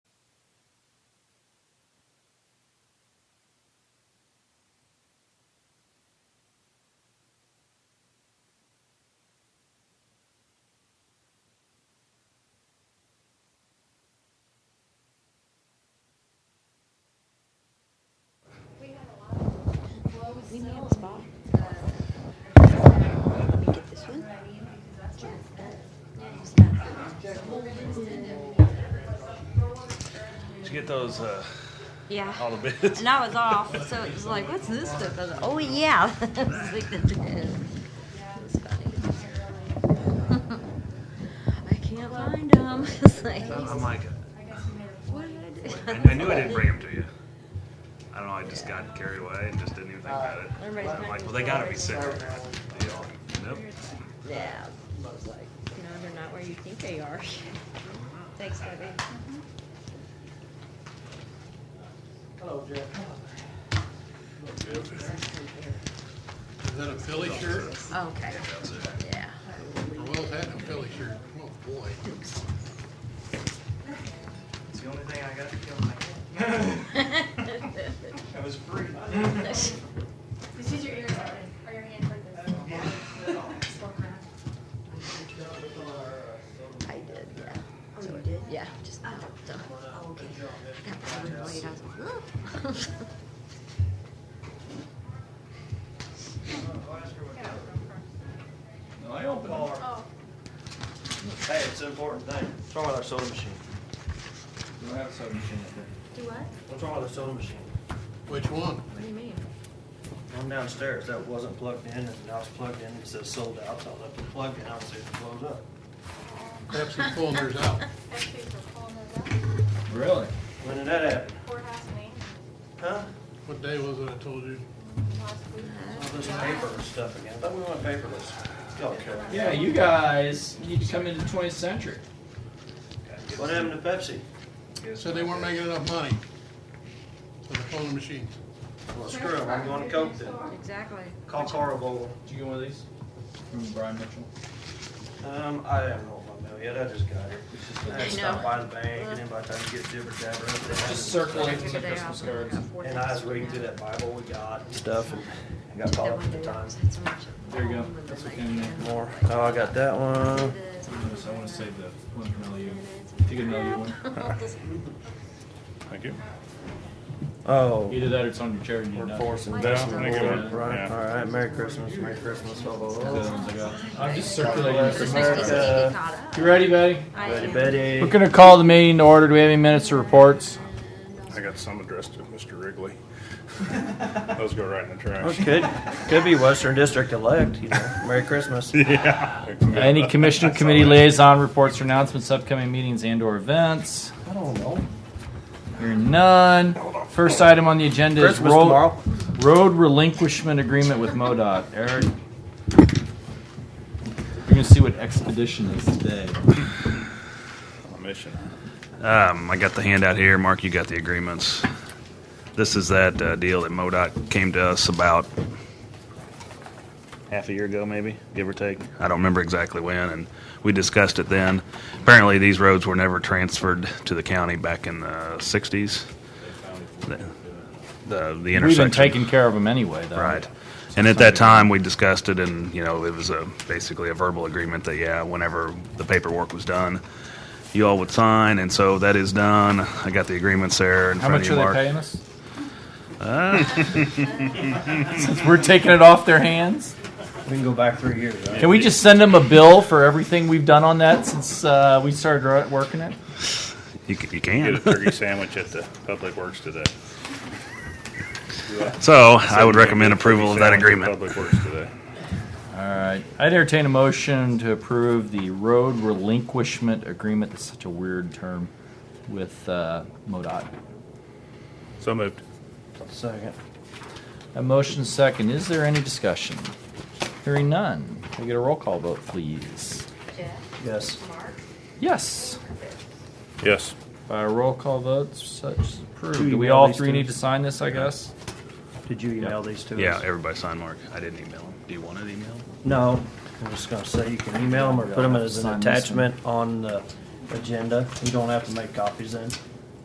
Did you get those, uh, Yeah. all the bids? And I was off, so it was like, what's this stuff? I was like, oh yeah. It was like, it was funny. I can't find them. It's like, I'm like, what did I, I do? I knew I didn't bring them to you. I don't know, I just got carried away and just didn't even think about it. Everybody's I'm like, trying well, to they gotta be sell sick. You know, Nope. Yeah. I was like, you know, they're not where you think they are. Thanks, Debbie. Hello, Jeff. Is that a Philly shirt? Okay. Yeah. Well, that a Philly shirt. Oh, boy. It's the only thing I got to kill my That was free. This is your ear, or your hand for this. I did, yeah. So I did? Yeah, just now. So, oh, okay. I got really annoyed. I was like, "Ugh." No, I opened all Oh. our. Hey, it's an important thing. What's wrong with our soda machine? We don't have a soda machine up there. Do what? What's wrong with our soda machine? Which one? What do you mean? One downstairs that wasn't plugged in, and now it's plugged in, it says sold out, so I left it plugged in, obviously it blows up. Pepsi pulling theirs out. That's food Um, for pulling those Really? When did that happen? up. Courthouse main, Huh? What day was it I told you? last week. All this paper and stuff again, but we went paperless. Y'all care. Yeah, you guys need to come into the 20th century. What happened to Pepsi? Said they weren't making enough money for the folding machines. Well, screw 'em, I'm going to Coke then. Exactly. Call Carl Bowl. Did you get one of these? From Brian Mitchell. Um, I haven't rolled my bill yet, I just got here. I had to stop know. by the bank, and then by the time you get jibber jabber up there. Just circling Figured some it out, Christmas but I cards. got four And I was things reading right through now. that Bible we got and stuff, and I got caught That up one at the day, I time. was had so much of There you go. them, and That's then what I came in. can't More, oh, I got that do one. this, I want to save the one from LU. and it's- Take another one. Thank you. Oh. Either that or it's on your chair and you know. Workforce and Yeah, vegetable make it oil, work. right, Yeah. all right, Merry Christmas, Merry Christmas, blah, blah, The other blah. ones I got. I'm Bless just circulating. This some makes me America. get cards. caught up. You ready, buddy? I Betty, am. We're Betty. gonna call the meeting to order. Do we have any minutes or reports? I got some addressed to Mr. Wrigley. Those go right in the trash. Could, could be Western District elect, you know, Merry Christmas. Yeah. Any commission That's committee all I- liaison reports or announcements, upcoming meetings and or events? I don't know. Hearing none. First item on the agenda is Christmas road, tomorrow. road relinquishment agreement with MoDOT. Eric, you're gonna see what expedition is today. On a Mission. Um, I got the handout here. Mark, you got the agreements. This is that uh, deal that MoDOT came to us about half a year ago, maybe, give or take. I don't remember exactly when, and we discussed it then. Apparently, these roads were never transferred to the county back in the 60s. The, the, the intersection. We've been taking care of them anyway, though. Right. And at that time, we discussed it, and, you know, it was a, basically a verbal agreement that, yeah, whenever the paperwork was done, you all would sign, and so that is done. I got the agreements there in How front much of are you, Mark. they paying us? Ah. Since we're taking it off their hands, We can go back three years, right? can we just send them a bill for everything we've done on that since uh, we started ro- working it? You, c- you Get a can. turkey sandwich at the Public Works today. So I would recommend Get a turkey approval of that sandwich at agreement. Public Works today. All right, I'd entertain a motion to approve the road relinquishment agreement. That's such a weird term with uh, MoDOT. So moved. Second. A motion second. Is there any discussion? Hearing none. Can we get a roll call vote, please? Jeff, Yes. Mark, Yes. Yes. By roll call votes, such is approved. Do you Do we email all these three to- need to sign this, I guess? Did you email these to us? Yeah, everybody sign Mark. I didn't email him. Do you want it emailed? No, I'm just gonna say you can email them or put them as an Sign this one. attachment on the agenda. You don't have to make copies then.